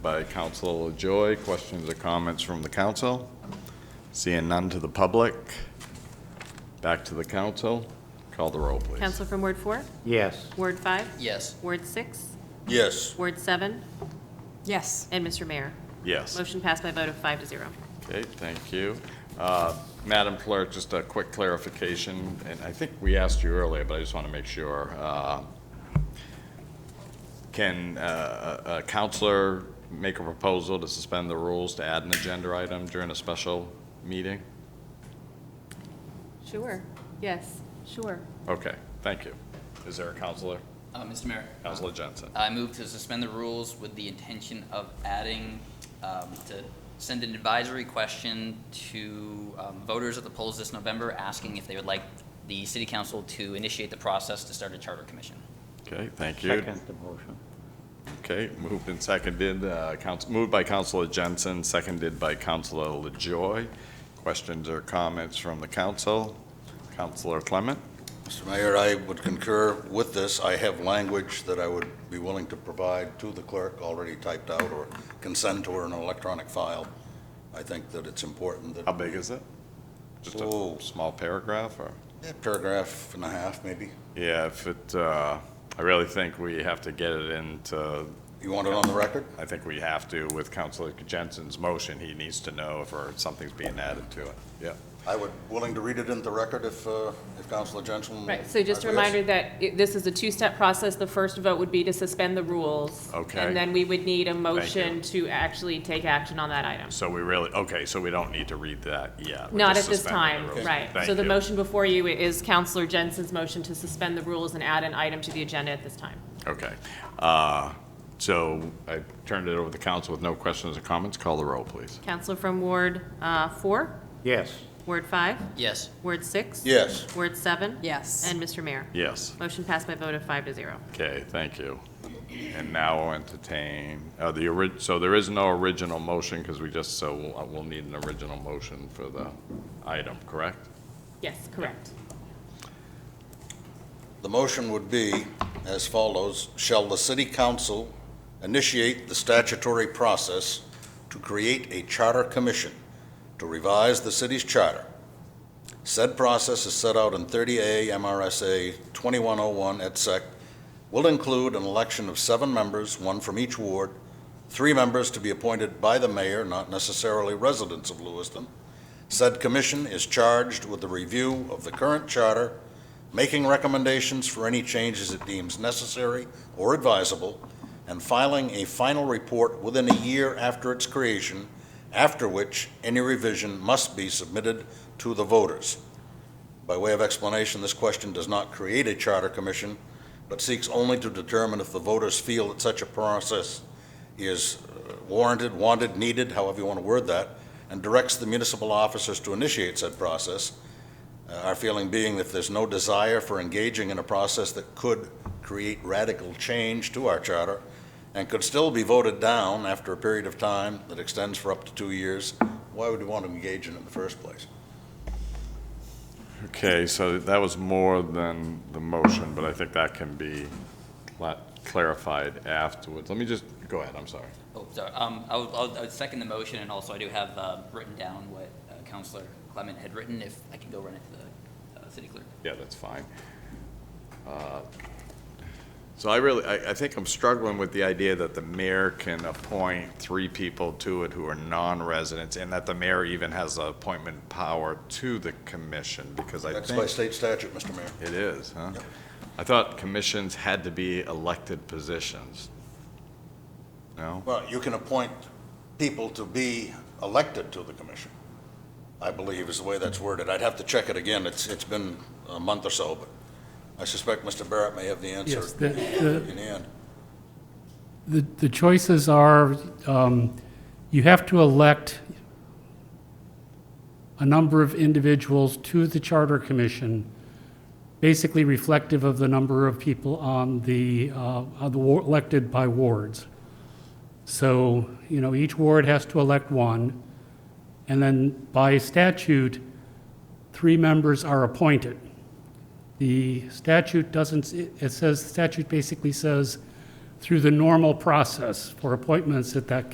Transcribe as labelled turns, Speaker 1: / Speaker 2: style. Speaker 1: by Council Joy. Questions or comments from the council? Seeing none to the public. Back to the council. Call the roll, please.
Speaker 2: Counsel from Ward 4,
Speaker 3: Yes.
Speaker 2: Ward 5,
Speaker 4: Yes.
Speaker 2: Ward 6,
Speaker 5: Yes.
Speaker 2: Ward 7,
Speaker 6: Yes.
Speaker 2: and Mr. Mayor.
Speaker 1: Yes.
Speaker 2: Motion passed by a vote of five to zero.
Speaker 1: Okay, thank you. Uh, Madam Clerk, just a quick clarification, and I think we asked you earlier, but I just want to make sure. Uh, Can uh, a a counselor make a proposal to suspend the rules to add an agenda item during a special meeting?
Speaker 2: Sure, yes, sure.
Speaker 1: Okay, thank you. Is there a counselor?
Speaker 4: Uh, Mr. Mayor.
Speaker 1: Counselor Jensen?
Speaker 4: I move to suspend the rules with the intention of adding, um, to send an advisory question to, um, voters at the polls this November, asking if they would like the city council to initiate the process to start a charter commission.
Speaker 1: Okay, thank you.
Speaker 3: Second the motion.
Speaker 1: Okay, moved and seconded, uh, couns- moved by Counselor Jensen, seconded by Counselor LaJoy. Questions or comments from the council? Counselor Clement?
Speaker 5: Mr. Mayor, I would concur with this. I have language that I would be willing to provide to the clerk already typed out or consent to or in an electronic file. I think that it's important
Speaker 1: How
Speaker 5: that
Speaker 1: big is it? Just a
Speaker 5: Oh.
Speaker 1: small paragraph, or?
Speaker 5: Yeah, paragraph and a half, maybe.
Speaker 1: Yeah, if it, uh, I really think we have to get it into,
Speaker 5: You want it on the record?
Speaker 1: I think we have to with Counselor Jensen's motion, he needs to know if or something's being added to it. Yeah.
Speaker 5: I would, willing to read it into the record if, uh, if Counselor Jensen.
Speaker 2: Right, so just a
Speaker 5: agrees.
Speaker 2: reminder that it- this is a two-step process. The first vote would be to suspend the rules.
Speaker 1: Okay.
Speaker 2: And then we would need a motion to actually take action on that item.
Speaker 1: So we really, okay, so we don't need to read that yet. We're
Speaker 2: Not at
Speaker 1: just
Speaker 2: this
Speaker 1: suspending
Speaker 2: time,
Speaker 1: the rules.
Speaker 2: right.
Speaker 1: Thank
Speaker 2: So the
Speaker 1: you.
Speaker 2: motion before you is Counselor Jensen's motion to suspend the rules and add an item to the agenda at this time.
Speaker 1: Okay. Uh, So I turned it over to the council with no questions or comments. Call the roll, please.
Speaker 2: Counselor from Ward uh, 4,
Speaker 3: Yes.
Speaker 2: Ward 5,
Speaker 4: Yes.
Speaker 2: Ward 6.
Speaker 5: Yes.
Speaker 2: Word seven?
Speaker 6: Yes.
Speaker 2: And Mr. Mayor?
Speaker 1: Yes.
Speaker 2: Motion passed by vote of five to zero.
Speaker 1: Okay, thank you. And now I'll entertain, uh, the orig, so there is no original motion because we just, so we'll, uh, we'll need an original motion for the item, correct?
Speaker 2: Yes, correct.
Speaker 5: The motion would be as follows. Shall the city council initiate the statutory process to create a charter commission to revise the city's charter? Said process is set out in 30A MRSA 2101 et sec. Will include an election of seven members, one from each ward, three members to be appointed by the mayor, not necessarily residents of Lewiston. Said commission is charged with the review of the current charter making recommendations for any changes it deems necessary or advisable, and filing a final report within a year after its creation, after which any revision must be submitted to the voters. By way of explanation, this question does not create a charter commission, but seeks only to determine if the voters feel that such a process is uh, warranted, wanted, needed, however you want to word that, and directs the municipal officers to initiate said process, uh, Our feeling being that if there's no desire for engaging in a process that could create radical change to our charter and could still be voted down after a period of time that extends for up to two years, why would we want to engage in it in the first place?
Speaker 1: Okay, so that was more than the motion, but I think that can be cla- clarified afterwards. Let me just, go ahead, I'm sorry.
Speaker 4: Oh, sorry. Um, I would, I would- I would second the motion, and also I do have, uh, written down what uh, Counselor Clement had written, if I can go run it to the, uh, city clerk.
Speaker 1: Yeah, that's fine. Uh, So I really, I, I think I'm struggling with the idea that the mayor can appoint three people to it who are non-residents, and that the mayor even has the appointment power to the commission, because I
Speaker 5: That's by
Speaker 1: think
Speaker 5: state statute, Mr. Mayor.
Speaker 1: it is, huh? I thought commissions had to be elected positions. No?
Speaker 5: Well, you can appoint people to be elected to the commission, I believe is the way that's worded. I'd have to check it again. It's, it's been a month or so, but I suspect Mr. Barrett may have the answer
Speaker 7: Yes, the, the,
Speaker 5: in the end.
Speaker 7: the the choices are, um, you have to elect a number of individuals to the Charter Commission, basically reflective of the number of people on the, uh, on the wa- elected by wards. So, you know, each ward has to elect one, and then by statute, three members are appointed. The statute doesn't, it says, the statute basically says, through the normal process for appointments at that